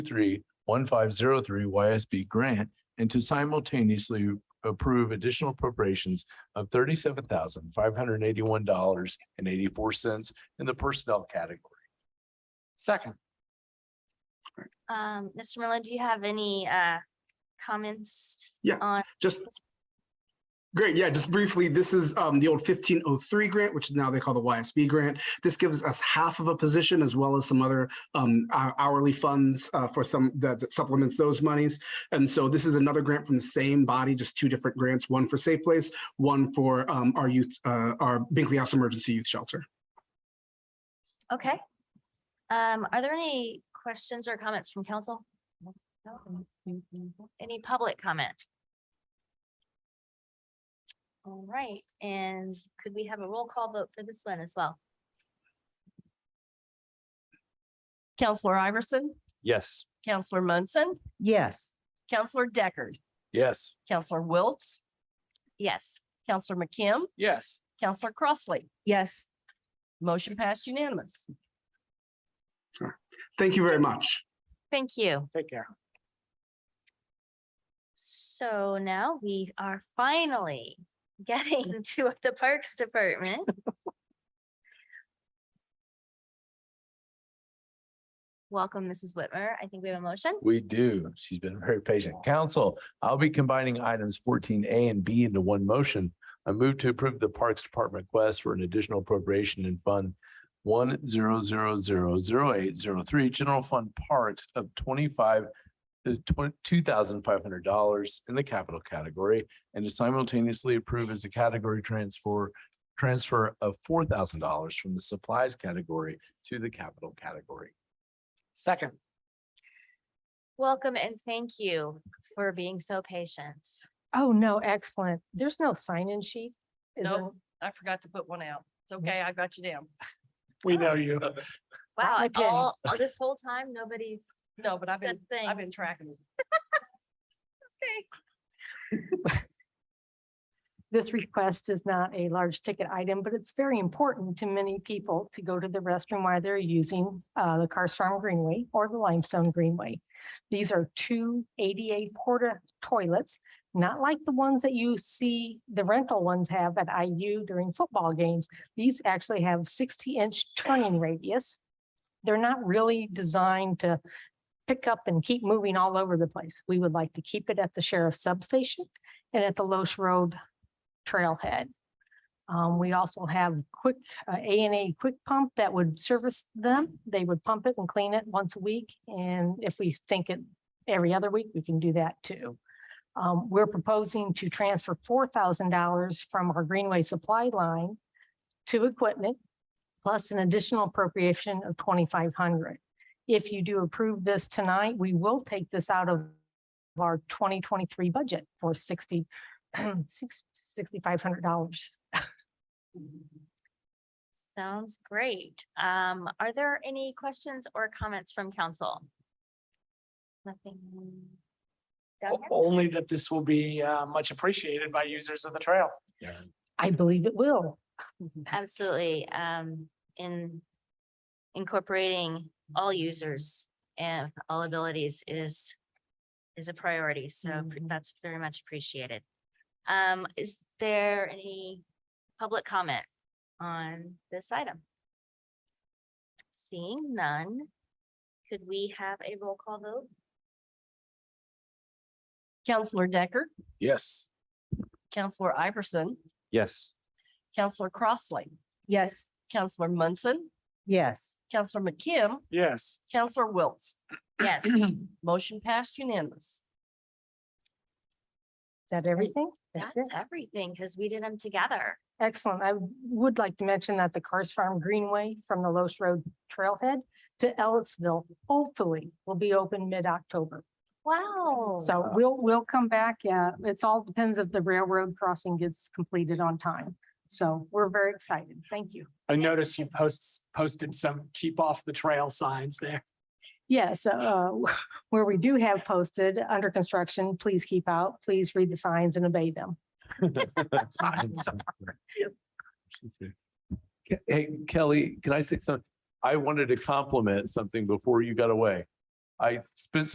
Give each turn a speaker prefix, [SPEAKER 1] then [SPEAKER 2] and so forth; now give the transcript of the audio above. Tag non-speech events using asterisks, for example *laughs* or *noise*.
[SPEAKER 1] three one five zero three YSB grant and to simultaneously approve additional appropriations of thirty-seven thousand five hundred and eighty-one dollars and eighty-four cents in the personnel category.
[SPEAKER 2] Second.
[SPEAKER 3] Um, Mr. Merlin, do you have any uh comments?
[SPEAKER 4] Yeah.
[SPEAKER 3] On,
[SPEAKER 4] Just great. Yeah, just briefly, this is um, the old fifteen oh three grant, which is now they call the YSB grant. This gives us half of a position as well as some other um, hou- hourly funds uh, for some that that supplements those monies. And so this is another grant from the same body, just two different grants, one for Safe Place, one for um, our youth, uh, our Binkley House Emergency Youth Shelter.
[SPEAKER 3] okay. Um, are there any questions or comments from council? No? Any public comment? All right, and could we have a roll call vote for this one as well?
[SPEAKER 5] Counselor Iverson,
[SPEAKER 1] Yes.
[SPEAKER 5] Counselor Munson,
[SPEAKER 6] Yes,
[SPEAKER 5] Counselor Deckard,
[SPEAKER 1] Yes.
[SPEAKER 5] Counselor Wiltz,
[SPEAKER 3] Yes,
[SPEAKER 5] Counselor McKim,
[SPEAKER 2] Yes.
[SPEAKER 5] Counselor Crossley.
[SPEAKER 6] yes,
[SPEAKER 5] Motion passed unanimous.
[SPEAKER 4] Thank you very much.
[SPEAKER 3] thank you.
[SPEAKER 2] Take care.
[SPEAKER 3] So now we are finally getting *laughs* to the Parks Department. Welcome, Mrs. Whitmer. I think we have a motion.
[SPEAKER 1] We do. She's been very patient. Council, I'll be combining items fourteen A and B into one motion. I move to approve the Parks Department request for an additional appropriation in Fund one zero zero zero zero eight zero three, General Fund Parks of twenty-five uh, two thousand five hundred dollars in the capital category and to simultaneously approve as a category transfer transfer of four thousand dollars from the supplies category to the capital category.
[SPEAKER 2] Second.
[SPEAKER 3] Welcome and thank you for being so patient.
[SPEAKER 7] Oh, no, excellent. There's no sign-in sheet. is there?
[SPEAKER 5] No, I forgot to put one out. It's
[SPEAKER 6] Mm-hmm.
[SPEAKER 5] okay, I got you down.
[SPEAKER 2] We know you.
[SPEAKER 3] Wow, and
[SPEAKER 7] okay.
[SPEAKER 3] all, all this whole time, nobody
[SPEAKER 5] No, but I've
[SPEAKER 3] said
[SPEAKER 5] been,
[SPEAKER 3] thing.
[SPEAKER 5] I've been tracking it.
[SPEAKER 7] This request is not a large ticket item, but it's very important to many people to go to the restroom while they're using uh, the Cars Farm Greenway or the Limestone Greenway. These are two ADA porta toilets, not like the ones that you see the rental ones have at IU during football games. These actually have sixty inch turning radius. They're not really designed to pick up and keep moving all over the place. We would like to keep it at the sheriff's substation and at the Loesch Road trailhead. Um, we also have quick, uh, A and A quick pump that would service them. They would pump it and clean it once a week. And if we think it every other week, we can do that too. Um, we're proposing to transfer four thousand dollars from our Greenway supply line to equipment, plus an additional appropriation of twenty-five hundred. If you do approve this tonight, we will take this out of our twenty twenty-three budget for sixty *clears throat* six, sixty-five hundred dollars.
[SPEAKER 3] Sounds great. Um, are there any questions or comments from council? Nothing. Down here?
[SPEAKER 2] Only that this will be uh, much appreciated by users of the trail.
[SPEAKER 7] I believe it will.
[SPEAKER 3] Absolutely, um, in incorporating all users and all abilities is, is a priority, so pr-
[SPEAKER 7] Mm-hmm.
[SPEAKER 5] Mhm.
[SPEAKER 3] that's very much appreciated. Um, is there any public comment on this item? Seeing none, could we have a roll call vote?
[SPEAKER 5] Counselor Deckard,
[SPEAKER 1] Yes.
[SPEAKER 5] Counselor Iverson,
[SPEAKER 1] Yes.
[SPEAKER 5] Counselor Crossley,
[SPEAKER 6] yes,
[SPEAKER 5] Counselor Munson,
[SPEAKER 6] yes.
[SPEAKER 5] Counselor McKim,
[SPEAKER 2] Yes. *laughs*
[SPEAKER 5] Counselor *clears throat* Wiltz.
[SPEAKER 3] Yes,
[SPEAKER 5] Motion passed unanimous.
[SPEAKER 7] Is that everything?
[SPEAKER 3] that's
[SPEAKER 7] That's it.
[SPEAKER 3] everything, because we did them together.
[SPEAKER 7] Excellent. I would like to mention that the Cars Farm Greenway from the Los Road Trailhead to Ellisville hopefully will be open mid-October.
[SPEAKER 3] Wow.
[SPEAKER 7] So we'll, we'll come back. Yeah, it's all depends if the railroad crossing gets completed on time. So we're very excited. Thank you.
[SPEAKER 2] I noticed you posts posted some keep off the trail signs there.
[SPEAKER 7] Yes, uh, where we do have posted under construction, please keep out, please read the signs and obey them.
[SPEAKER 1] Ke- Hey, Kelly, can I say something? I wanted to compliment something before you got away. I spent